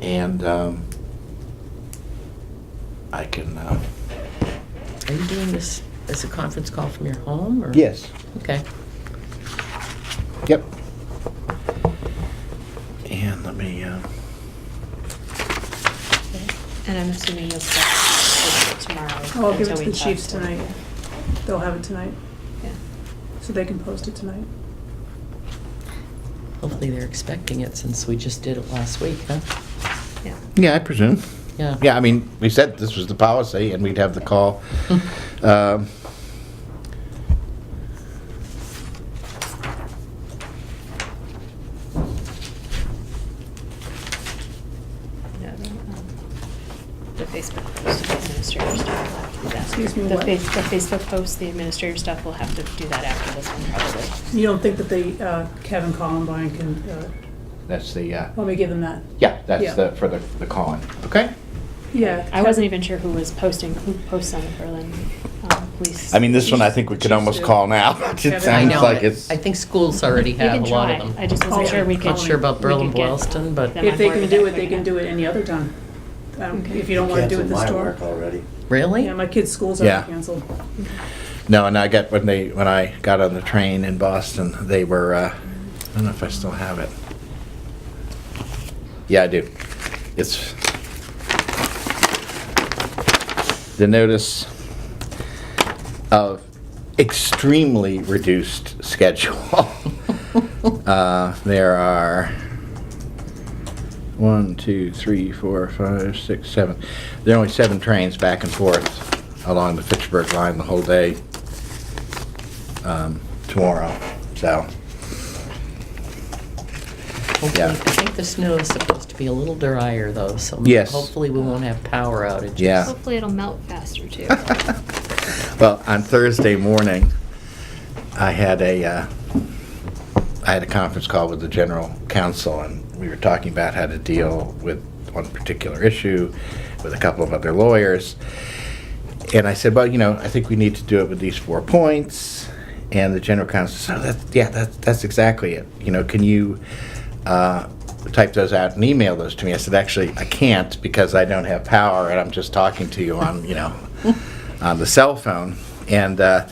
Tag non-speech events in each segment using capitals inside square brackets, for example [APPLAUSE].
And um, I can, uh, Are you doing this as a conference call from your home, or? yes, Okay. yep. And let me, uh, And I'm assuming you'll start it tomorrow. Oh, I'll give it until to we the talk chiefs tonight. They'll have it tonight, Yeah. so they can post it tonight. Hopefully they're expecting it since we just did it last week, huh? Yeah. yeah, I presume. Yeah. Yeah, I mean, we said this was the policy and we'd have the call. Um, No, the, um, The Facebook post, the administrator stuff. will have to do that. Excuse me, The what? face- The Facebook post, the administrator stuff, we'll have to do that after this one probably. You don't think that they, uh, Kevin Columbine can, uh, That's the, uh, let me give them that? yeah, Yeah. that's the, for the the calling, okay? Yeah. I wasn't even sure who was posting, who posts on the Berlin um, Police. I mean, this one I think we could almost call now. [LAUGHS] It I sounds know. like but it's, I think schools already You have can a lot try. of them. I just wasn't Oh, sure we I'm could. Not sure about we could Berlin get Boylston, but- them If on they board can with do that it, they quick can enough. do it any other time. Um, Okay. If you don't wanna do it at the Canceled my store. work already. Really? Yeah, my kids' schools Yeah. are canceled. no, and I got, when they, when I got on the train in Boston, they were, uh, I don't know if I still have it. Yeah, I do. It's the notice of extremely reduced [LAUGHS] schedule. Uh, there are one, two, three, four, five, six, seven. There are only seven trains back and forth along the Fitchburg line the whole day um, tomorrow. So, Hopefully, yeah. I think the snow is supposed to be a little drier though, so. Yes. Hopefully we won't have power outages. Yeah. Hopefully it'll melt faster [LAUGHS] too. well, on Thursday morning, I had a uh, I had a conference call with the general counsel, and we were talking about how to deal with one particular issue with a couple of other lawyers. And I said, well, you know, I think we need to do it with these four points. And the general counsel said, oh, that's, yeah, that's, that's exactly it. You know, can you uh, type those out and email those to me? I said, actually, I can't because I don't have power and I'm just talking to you on, you know, on the cell phone. And uh,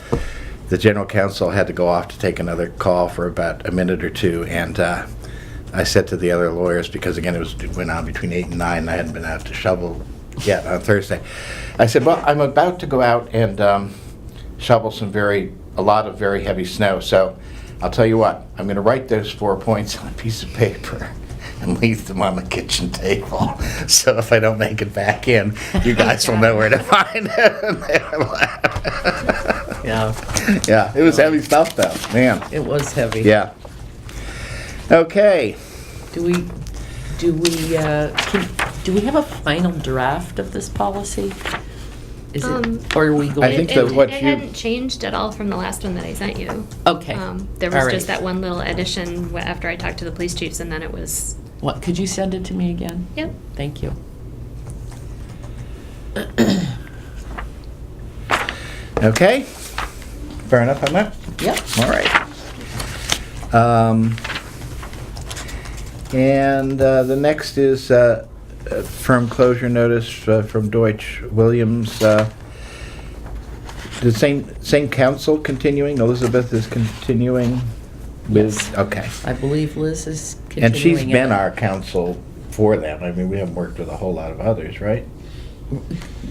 the general counsel had to go off to take another call for about a minute or two. And uh, I said to the other lawyers, because again, it was, it went on between eight and nine, and I hadn't been out to shovel yet on Thursday. I said, well, I'm about to go out and um, shovel some very, a lot of very heavy snow, so I'll tell you what, I'm gonna write those four points [LAUGHS] on a piece of paper and leave them on the kitchen table. [LAUGHS] So if I don't make it back in, you guys will know where to find it. [LAUGHS] And they were like- Yeah, Yeah, it was heavy stuff though, man, it was heavy. yeah. Okay. Do we, do we, uh, can, do we have a final draft of this policy? Is Um, it, or are we I going? think It- that it- what It you- hadn't changed at all from the last one that I sent you. Okay. Um, There All was right. just that one little addition wh- after I talked to the police chiefs, and then it was, What, could you send it to me again? yep. Thank you. Okay. Fair enough on that? Yep. All right. Um, And uh, the next is uh, uh, firm closure notice uh, from Deutsch Williams. uh, The same, same council continuing, Elizabeth is continuing with, Yes. okay. I believe Liz is continuing. And she's been it. our counsel for them, I mean, we haven't worked with a whole lot of others, right?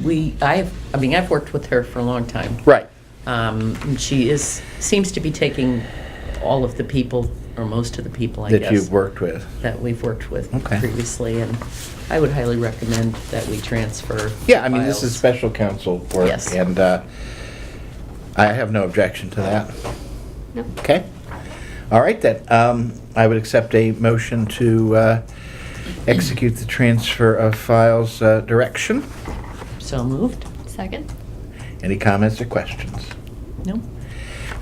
We, I've, I mean, I've worked with her for a long time. Right. Um, and she is, seems to be taking all of the people, or most of the people, I guess. That you've worked with. That we've worked with Okay. previously, and I would highly recommend that we transfer. Yeah, I mean, this is files. special counsel work. Yes. And uh, I have no objection to that. Nope. Okay? All right, then. Um, I would accept a motion to uh, execute the transfer of files uh, direction. So moved? Second? Any comments or questions? No?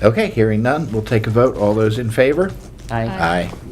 Okay, hearing none, we'll take a vote. All those in favor? Aye. Aye. Aye.